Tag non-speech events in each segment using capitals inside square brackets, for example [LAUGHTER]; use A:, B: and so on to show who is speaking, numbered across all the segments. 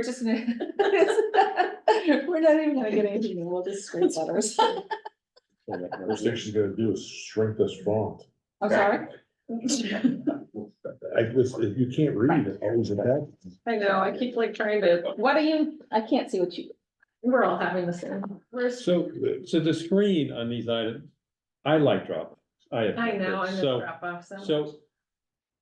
A: We're just. [LAUGHS] We're not even gonna get anything, we'll just scrape letters.
B: First thing she's gonna do is
A: [LAUGHS]
B: shrink this font.
A: I'm sorry.
B: I just, you can't read it, always attached.
A: I know, I keep like trying to, what are you, I can't see what you, we're all having the same. Where's,
C: So, so the screen on these items, I like Dropbox. I. have
A: I know,
C: Dropbox.
A: I'm gonna drop off some.
C: So, so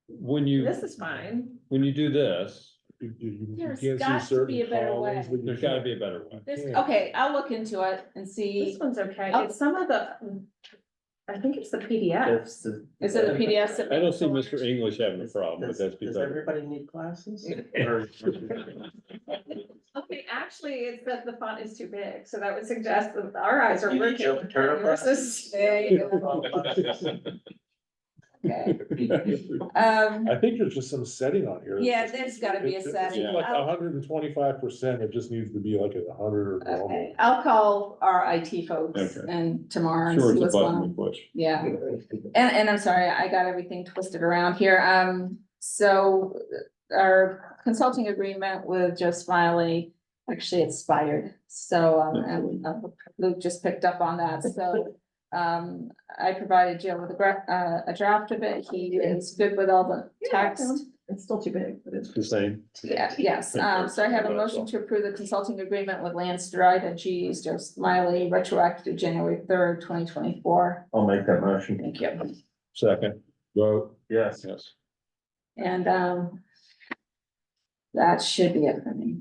C: when you,
A: This is fine.
C: when you do this,
B: You- you- you
D: There's
B: can't see
D: got to
B: certain
D: be a better
B: columns,
D: way.
B: but you
C: there's gotta
B: can't-
C: be a better way.
D: There's-
B: you can't.
A: Okay, I'll look into it and This see,
D: one's okay.
A: it's some of the, I think it's the PDFs.
E: That's the.
A: [LAUGHS] Is it a PDF? that-
C: I don't see Mr. English having a problem with
E: Does-
C: that.
E: Does
C: because
E: everybody need classes? Or-
A: Okay, actually, it's that the font is too big, so that would suggest that our eyes are
E: You need
A: working.
E: Joe Paterno
A: Versus-
E: glasses?
A: There you
C: [LAUGHS]
A: go. Okay. Um,
B: I think there's just some setting on here.
A: Yeah, there's gotta be a
B: It's- it's
A: setting. Oh.
B: Like hundred and twenty-five percent, it just needs to be like a hundred or
A: okay,
B: normal.
A: I'll call our IT folks
C: Okay.
A: and tomorrow and
C: Sure,
A: see
C: it's a
A: what's going
C: button
A: on.
C: we push.
A: Yeah, and, and I'm sorry, I got everything twisted around here. Um, so uh, our consulting agreement with Joe Smiley actually expired. So, um, and uh, Luke just picked up on that, so. Um, I provided Joe with a gra- uh, a draft of it. He is good with all the text.
D: It's still too big, but it's.
C: The same.
A: Yeah, yes, um, so I have a motion to approve the consulting agreement with Lance Dried and G E Joe Smiley retroactive January third, twenty twenty-four.
E: [LAUGHS] I'll make that motion.
A: Thank you.
C: Second,
B: Well,
E: Yes.
C: yes.
A: And, um. That should be it for me.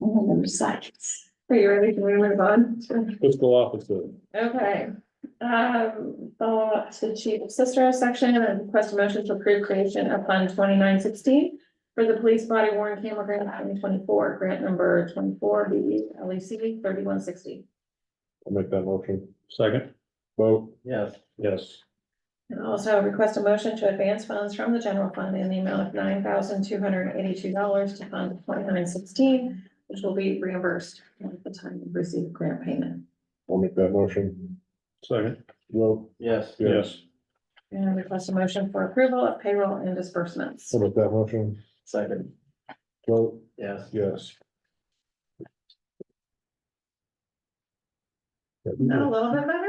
A: All of them sides.
D: Are you ready to move on?
B: let's go off with the,
D: Okay, um, follow up to chief of sister section and request a motion to approve creation of fund twenty-nine sixteen. For the police body worn camera grant twenty twenty-four, grant number twenty-four, B L E C thirty-one sixty.
B: I'll make that motion.
C: Second,
B: Vote,
E: Yes.
B: yes.
D: And also request a motion to advance funds from the general fund in the amount of nine thousand two hundred and eighty-two dollars to fund twenty-nine sixteen, which will be reimbursed at the time of receipt of grant payment.
B: I'll make that motion.
C: second,
B: Vote,
E: Yes.
C: yes.
D: And request a motion for approval of payroll and disbursements.
B: I'll make that motion.
E: Second.
B: Vote,
E: Yes.
B: yes.
D: Not a little bit better?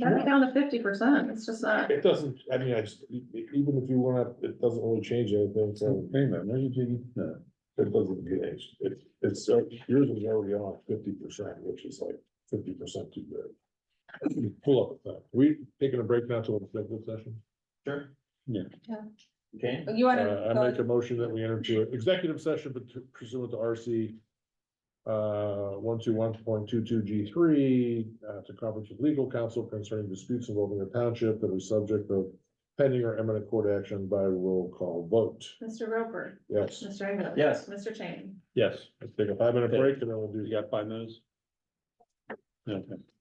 D: Got it down to fifty percent, it's just not,
B: It doesn't, I mean, I just, e- e- even if you wanna, it doesn't really change anything,
C: Wait a
B: so
C: minute, where did you, no,
B: it doesn't change. It's, it's, uh, yours is already on fifty percent, which is like fifty percent too big. Pull up, that. we taking a break now to a executive session?
E: Sure.
C: Yeah.
A: Yeah.
E: Okay.
A: You wanna?
B: Uh, I make a motion that we enter into an executive session pursuant to RC. Uh, one, two, one point two, two, G three, uh, to conference with legal counsel concerning disputes involving the township that are subject of. Pending or imminent court action by roll call vote.
D: Mr. Roper,
B: Yes,
D: Mr. Engel.
E: Yes.
D: Mr. Chain.
C: yes,
B: let's take a five minute break and then we'll do.
C: you got five minutes? Okay.